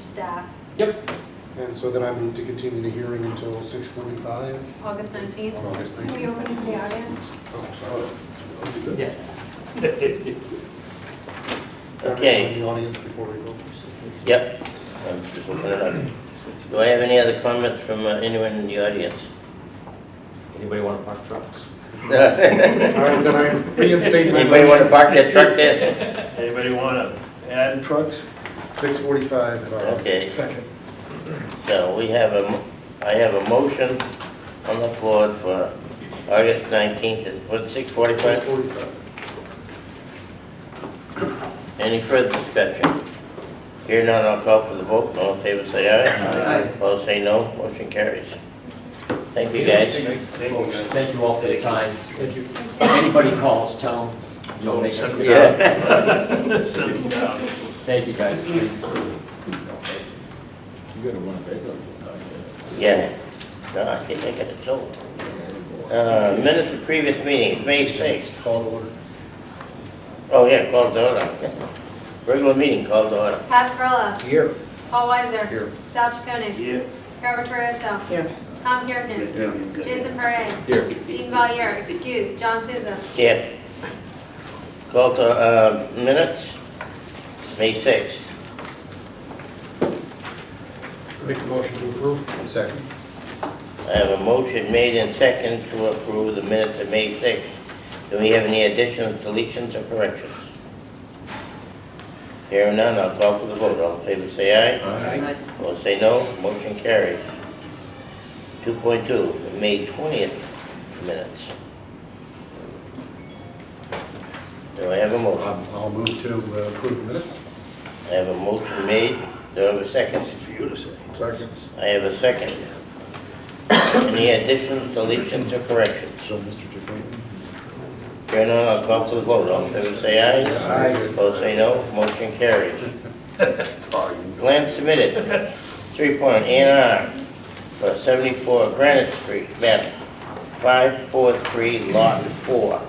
staff, Yep, And so then I move to continue the hearing until six forty-five August 19th. on August Can we nineteenth. open the audience? Oh, yes. In Okay, the audience before we go. yep. I'm just looking it up. Do I have any other comments from uh, anyone in the audience? Anybody want to park trucks? All right, then I reinstate my Anybody want to motion, park their truck there? Anybody want to add trucks? six forty-five. Okay. Second. So we have a, mo- I have a motion on the floor for August 19th at, what, Six 6:45? forty-five. Any further discussion? Here none, I'll call for the vote. All in favor, say aye. Aye. Opposed, say no. Motion carries. Thank you, guys. Thank you, guys. Thank you all for your time. Thank you. If anybody calls, tell them you'll make us. Yeah. Send them down. Thank you, guys. You gotta run a paper. Yeah, no, I think I got it sold. Uh, Minutes of previous meetings, May 6th. Call to order. Oh, yeah, called to order. Regular meeting called to order. Pat Perla, Here. Paul Weiser. Here. Sal Chaconi. Yeah. Carol Torriello. Tom Kirkin. Jason Parra. Here. Dean Valier, excuse, John Souza. Yeah. Called to, uh, minutes, May 6th. Make the motion to approve. Second. I have a motion made and second to approve the minutes of May 6th. Do we have any additions, deletions, or corrections? Here and none, I'll call for the vote. All in favor, say aye. Opposed, say no. Motion carries. 2.2, the May 20th minutes. Do I have a motion? Um, I'll move to uh, approve the minutes. I have a motion made. Do I have a second? That's for you to say. Second. I have a second. Any additions, deletions, or corrections? So, Mr. Chacon. Here none, I'll call for the vote. All in favor, say aye. Aye. Opposed, say no. Motion carries. Plan submitted, three point, A and R, for seventy-four Granite Street, map five four three, lot four.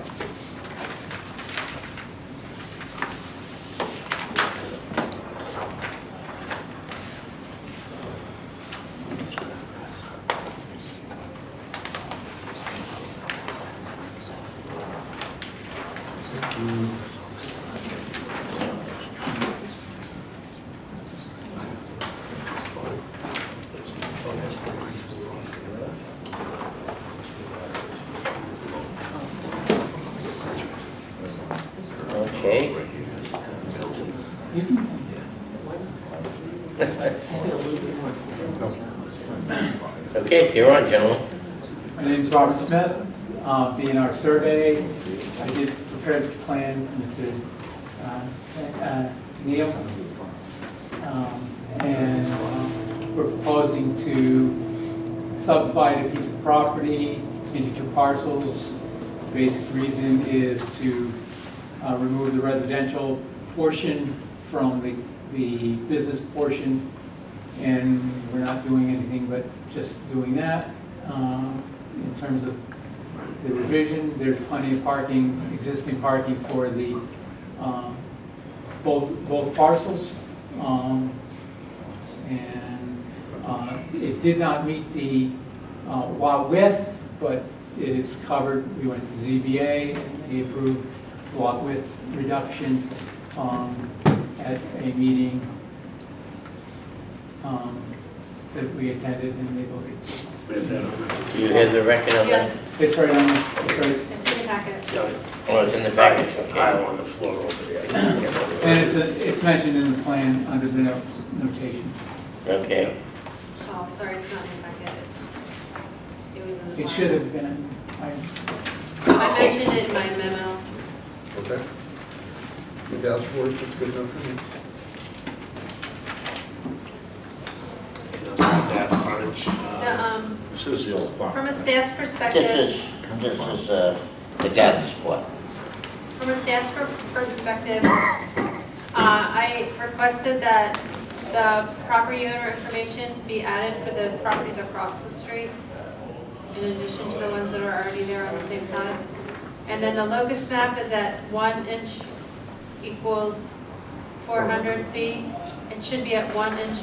Okay. Okay, you're on, gentlemen. My name's Robert Smith, uh, B&R Survey. I did prepare this plan, Mr. uh, uh, Neal. Um, And um, we're proposing to subdivide a piece of property into two parcels. Basic reason is to uh, remove the residential portion from the the business portion and we're not doing anything but just doing that. Um, In terms of the revision, there's plenty of parking, existing parking for the, um, both, both parcels. Um, And uh, it did not meet the uh, lot width, but it is covered, we went to ZBA, and they approved lot width reduction um, at a meeting um, that we attended and they voted. Do you have the record on that? Yes, It's right on, it's right, it's in the packet. Oh, it's in the package, Pile okay. on the floor over there. and it's, a- it's mentioned in the plan under the no- notation. Okay, Oh, sorry, it's not in the packet. It was in the. It file. should have been, I- I mentioned it in my memo. Okay. You vouch for it, that's good enough for me. That frontage. The, uh, um, This is the old farm. From a staff's perspective. this is, this is, uh, the guidance squad. From a staff's per- perspective, uh, I requested that the property owner information be added for the properties across the street, in addition to the ones that are already there on the same side. And then the locus map is at one inch equals 400 feet. It should be at one inch